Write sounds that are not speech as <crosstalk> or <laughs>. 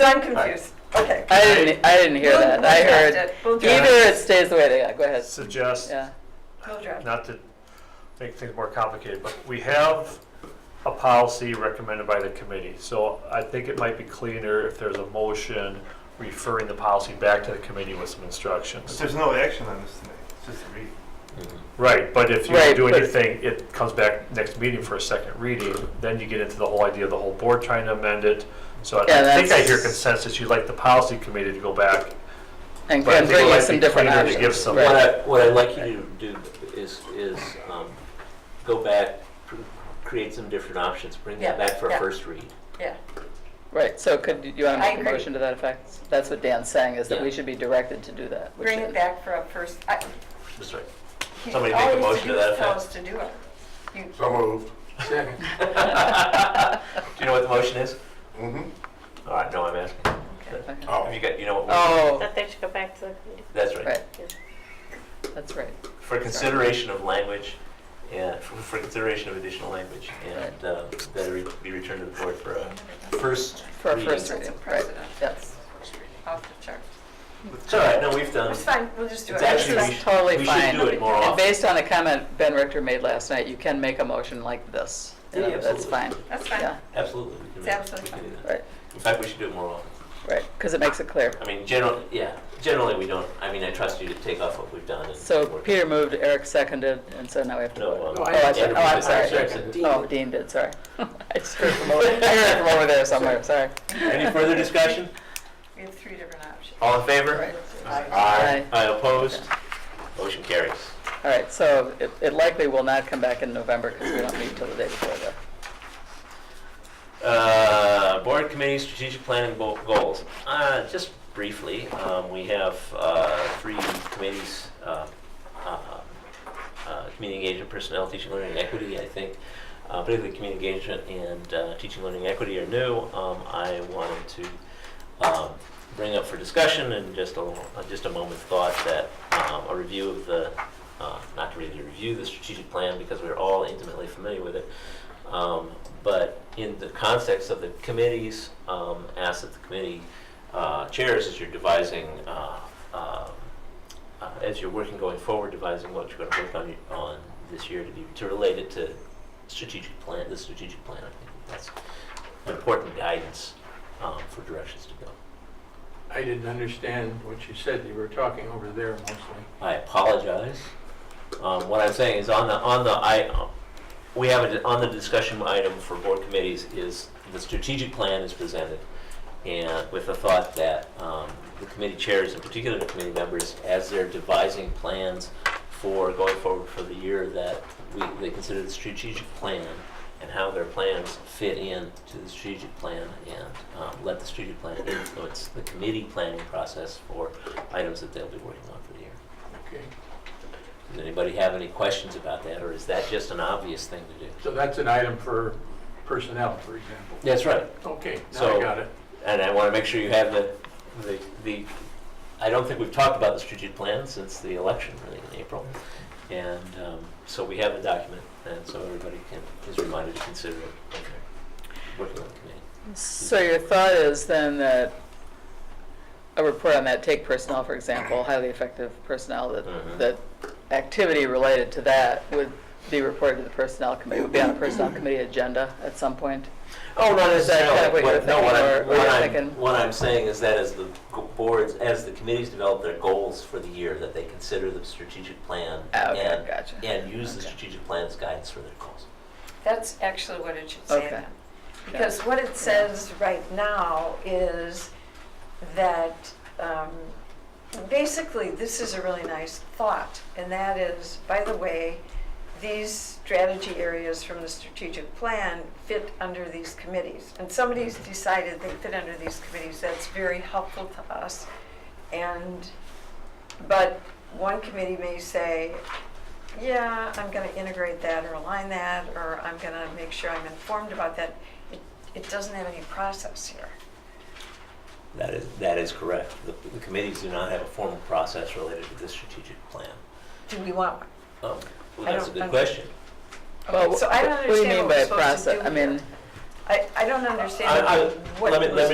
I'm confused. Okay. I didn't, I didn't hear We'll- that. we'll I draft heard it. We'll draft either it stays the way they are. Go ahead. suggest, Yeah. We'll draft. not to make things more complicated, but we have a policy recommended by the committee. So I think it might be cleaner if there's a motion referring the policy back to the committee with some But instructions. there's no action on this tonight, it's just a read. Right, but if you Right, do but- anything, it comes back next meeting for a second reading, then you get into the whole idea of the whole board trying to amend it. So I Yeah, think I hear that's- consensus, you'd like the policy committee to go back. And, But I and think it bring might you some be different cleaner to options. give some- What Right. I, what I'd like you to do is, is um, go back, cr- create some different options, bring that Yeah, back for yeah. a first read. Yeah. Right. So could you want to I make a agree. motion to that effect? That's what Dan's saying is that Yeah. we should be directed to do that. which Bring is- it back for a first. I, That's right. he- Somebody all make a he has motion do to that is tell effect. us to do it. You- So moved. Do you know what the motion is? Mm-hmm. All right, no, I'm asking. Okay. Have you got, you know what? motion- Oh, That they should go back to the committee. That's right. right. That's right. For consideration of language, yeah, for for consideration of additional language, and uh, that it re- be returned to the board for a first For a reading. first It's That's reading. a Right. precedent. Yes. Off the chart. all right, no, we've done, It's fine. We'll just do it. it's actually, This we is- should, totally we fine. should do it more And often. based on a comment Ben Richter made last night, you can make a motion like this. You Yeah, know, That's absolutely. fine. That's Yeah. fine. Absolutely. we can It's make- absolutely we can do fine. that. Right. In fact, we should do it more often. Right. Because it makes it clear. I mean, general, yeah, generally we don't, I mean, I trust you to take off what we've done. and So work. Peter moved, Eric seconded, and so now we have to No, vote. um, Oh, I said- Andrew oh, I'm was- sorry. said- Oh, Dean did, <laughs> sorry. I just heard from over, I heard from over there somewhere, sorry. Any further discussion? We have three different options. All in favor? Right. Aye. Aye, opposed? Motion carries. All right, so it- it likely will not come back in November because we don't meet till the day before that. Uh, Board Committee Strategic Planning Bo- Goals. Uh, Just briefly, um, we have uh, three committees, uh, uh, uh, Community Engagement, Personnel, Teaching, Learning, and Equity, I think. Uh, Particularly Community Engagement and uh, Teaching, Learning, and Equity are new. Um, I wanted to um, bring up for discussion and just a, little- uh, just a moment's thought that um, a review of the, uh, not to really review the strategic plan because we're all intimately familiar with it, um, but in the context of the committees, um, ask that the committee uh, chairs, as you're devising, uh, um, uh, as you're working going forward, devising what you're going to work on, on this year to be, to relate it to strategic plan, the strategic plan, I think that's important guidance um, for directions to go. I didn't understand what you said. You were talking over there mostly. I apologize. Um, what I'm saying is on the, on the, I, um, we have it, on the discussion item for board committees is the strategic plan is presented. And with the thought that, um, the committee chairs, in particular the committee members, as they're devising plans for going forward for the year, that we, they consider the strategic plan and how their plans fit in to the strategic plan and, um, let the strategic plan influence the committee planning process for items that they'll be working on for the year. Okay. Does anybody have any questions about that, or is that just an obvious thing to do? So that's an item for personnel, for example. That's right. Okay, now So- I got it. And I want to make sure you have the, the, the, I don't think we've talked about the strategic plan since the election, really, in April. And um, so we have the document, and so everybody can, is reminded to consider it when they're working on the committee. So your thought is then that a report on that, take personnel, for example, highly effective personnel, that, Mhm. that activity related to that would be reported to the personnel committee, would be on a personnel committee agenda at some point? Oh, not Is that kind of what necessarily. you're What- No, what thinking, I'm, or- or what you're I'm, thinking- what I'm saying is that as the g- boards, as the committees develop their goals for the year, that they consider the strategic plan Ah, Okay, and gotcha. and use the Okay. strategic plan as guidance for their goals. That's actually what it should say Okay. then. Because what it says right now is that, um, basically, this is a really nice thought, and that is, by the way, these strategy areas from the strategic plan fit under these committees. And somebody's decided they fit under these committees, that's very helpful to us. And, but one committee may say, yeah, I'm gonna integrate that or align that, or I'm gonna make sure I'm informed about that. It, it doesn't have any process here. That is, that is correct. The, the committees do not have a formal process related to the strategic plan. Do we want one? Um, well, I that's a don't- good I'm- question. Well, So I don't what do you understand mean what by we're supposed to do process? I mean. here. I, I don't I- I- understand what let me- was let me